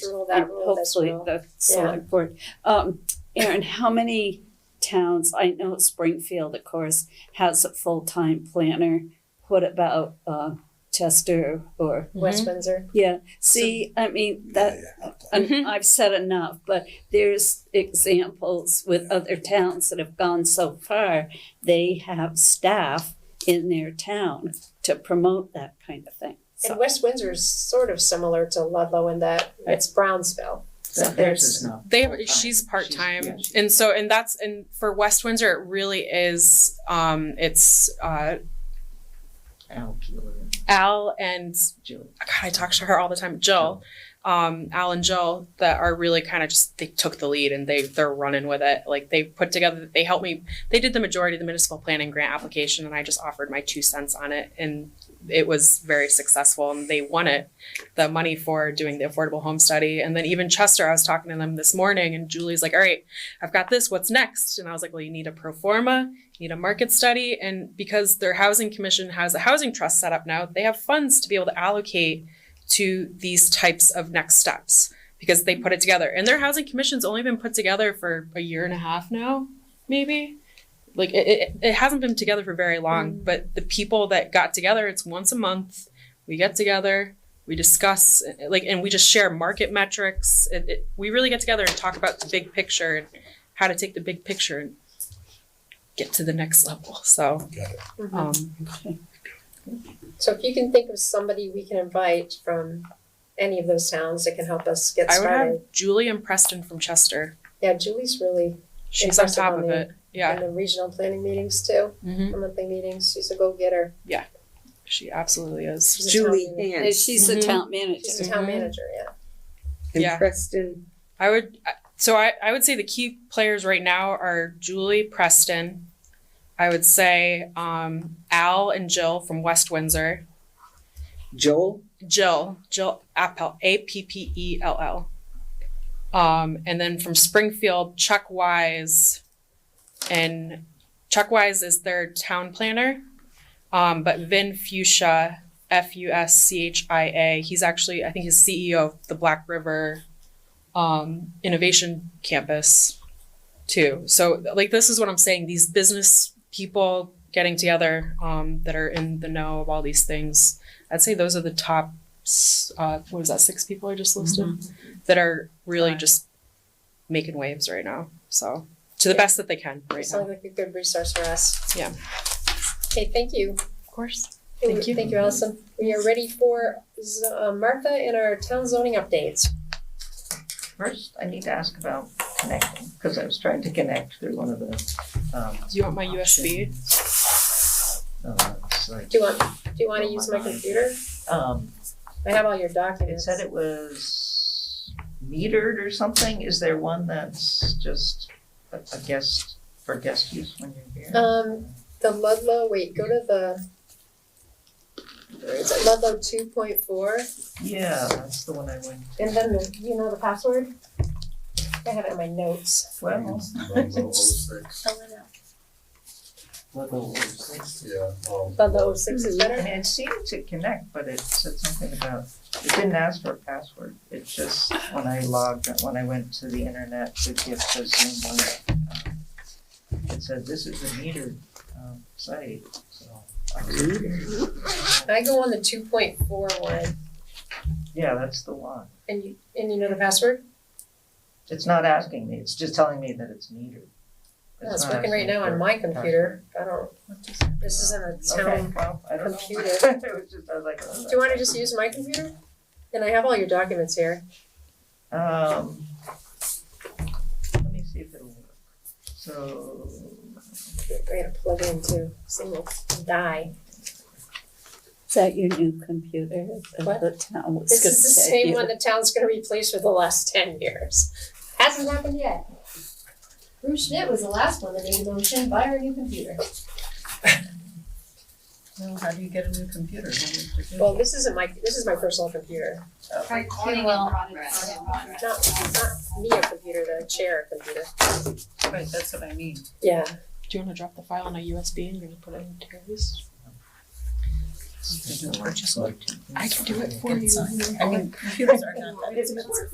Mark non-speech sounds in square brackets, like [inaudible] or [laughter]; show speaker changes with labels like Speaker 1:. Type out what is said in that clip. Speaker 1: rule, that
Speaker 2: and
Speaker 1: rule, this
Speaker 2: hopefully
Speaker 1: rule.
Speaker 2: the select board. Um, Erin, how many towns, I know Springfield, of course, has a full-time planner. What about, uh, Chester or,
Speaker 3: Mm-hmm.
Speaker 1: West Windsor.
Speaker 2: yeah, see, I mean, that,
Speaker 3: Mhm.
Speaker 1: Mm-hmm.
Speaker 2: and I've said enough, but there's examples with other towns that have gone so far. They have staff in their town to promote that kind of thing.
Speaker 1: And
Speaker 2: So,
Speaker 1: West Windsor is sort of similar to Ludlow in that it's Brownsville. So
Speaker 4: There's
Speaker 1: there's,
Speaker 4: no.
Speaker 3: They
Speaker 4: full-time.
Speaker 3: she's part time,
Speaker 4: yeah, she's-
Speaker 3: and so and that's and for West Windsor it really is. Um, it's uh,
Speaker 4: Al Keeler and
Speaker 3: Al and
Speaker 4: Jill.
Speaker 3: God, I talk to her all the time. Jill, um, Al and Jill that are really kind of just they took the lead and they they're running with it. Like they put together, they helped me. They did the majority of the municipal planning grant application, and I just offered my two cents on it, and it was very successful. And they won it, the money for doing the affordable home study. And then even Chester, I was talking to them this morning, and Julie's like, "All right, I've got this. What's next?" And I was like, "Well, you need a pro forma." need a market study and because their housing commission has a housing trust set up now they have funds to be able to allocate to these types of next steps because they put it together and their housing commission's only been put together for a year and a half now maybe like it, it, it hasn't been together for very long but the people that got together it's once a month we get together we discuss eh, like and we just share market metrics it, it, we really get together and talk about the big picture and how to take the big picture and get to the next level. So,
Speaker 1: Mhm.
Speaker 3: um,
Speaker 1: so if you can think of somebody we can invite from any of those towns that can help us get
Speaker 3: I would
Speaker 1: started.
Speaker 3: have Julie and Preston from Chester.
Speaker 1: Yeah, Julie's really
Speaker 3: She's on
Speaker 1: Impressive
Speaker 3: top
Speaker 1: on
Speaker 3: of
Speaker 1: the-
Speaker 3: it. Yeah,
Speaker 1: in the regional planning meetings too,
Speaker 3: Mhm.
Speaker 1: monthly meetings. She's a go getter.
Speaker 3: she absolutely is.
Speaker 1: She's a town
Speaker 5: Julie
Speaker 1: manager.
Speaker 2: and
Speaker 5: Hans
Speaker 2: she's the
Speaker 3: Mhm.
Speaker 2: town
Speaker 1: Mm-hmm. She's
Speaker 2: manager.
Speaker 1: a town
Speaker 3: Mhm.
Speaker 1: manager, yeah.
Speaker 5: and
Speaker 3: Yeah.
Speaker 5: Preston.
Speaker 3: I would. I- So I, I would say the key players right now are Julie Preston. I would say um, Al and Jill from West Windsor.
Speaker 5: Joel,
Speaker 3: Jill, Jill Appel, A P P E L L. Um, and then from Springfield, Chuck Wise, and Chuck Wise is their town planner. Um, but Vin Fuchsia, F U S C H I A, he's actually, I think, he's CEO of the Black River um, Innovation Campus, too. So, like, this is what I'm saying these business people getting together um, that are in the know of all these things. I'd say those are the top. s- Uh, what was that? Six people I just listed that are really
Speaker 2: Right.
Speaker 3: just making waves right now. So to the best that they can right now.
Speaker 1: Sounds like a good resource for us.
Speaker 3: Yeah.
Speaker 1: Okay, thank you.
Speaker 3: Of course.
Speaker 1: Thank you. Thank you, Allison. We are ready for Z- uh, Martha and our town zoning updates.
Speaker 4: First, I need to ask about connecting, because I was trying to connect through one of the, um,
Speaker 3: Do you want my USB?
Speaker 4: uh, it's like,
Speaker 1: Do you want, do you wanna use my computer?
Speaker 4: um,
Speaker 1: I have all your
Speaker 4: it
Speaker 1: documents.
Speaker 4: said it was metered or something. Is there one that's just a a guest, for guest use when you're here?
Speaker 1: Um, the Ludlow, wait, go to the. Where is it? Ludlow two point four,
Speaker 4: Yeah, that's the one I went,
Speaker 1: and then the, you know the password? I have it in my notes.
Speaker 4: well,
Speaker 6: Yeah, um,
Speaker 1: Ludlow oh six is
Speaker 4: I
Speaker 1: better.
Speaker 4: mean, it seemed to connect, but it said something about, it didn't ask for a password. It just, when I logged, when I went to the internet to get the Zoom link, um, it said, this is a metered, um, site, so. I was confused.
Speaker 1: I go on the two point four one,
Speaker 4: Yeah, that's the one.
Speaker 1: and you, and you know the password?
Speaker 4: It's not asking me, it's just telling me that it's metered.
Speaker 1: No, It's
Speaker 4: not
Speaker 1: working right
Speaker 4: asking
Speaker 1: now
Speaker 4: for
Speaker 1: on my
Speaker 4: a
Speaker 1: computer. I don't, this isn't a
Speaker 4: password.
Speaker 1: town.
Speaker 4: Okay, well, I don't know.
Speaker 1: computer.
Speaker 4: [laughs] It was just, I was like. oh,
Speaker 1: Do you wanna just use my computer? And I have all your documents here.
Speaker 4: Um, let me see if it'll work. So,
Speaker 1: I gotta plug in too, so we'll die.
Speaker 2: Is that your new computer? that
Speaker 1: What?
Speaker 2: The town was
Speaker 1: This
Speaker 2: gonna
Speaker 1: is the
Speaker 2: get
Speaker 1: same
Speaker 2: you?
Speaker 1: one the town's gonna replace for the last ten years. Hasn't happened yet. Bruce Schmidt was the last one that made a motion, buy her a new computer.
Speaker 4: well, how do you get a new computer? What do you have to do?
Speaker 1: Well, this isn't my, this is my personal computer.
Speaker 7: Recording in progress.
Speaker 1: Not, not me a computer, the chair a computer.
Speaker 4: Right, that's what I mean.
Speaker 1: Yeah.
Speaker 3: Do you want to drop the file on a USB and you're gonna put it in Terry's?
Speaker 4: It didn't work.
Speaker 3: I can do it for you.
Speaker 4: I mean, computers are not that.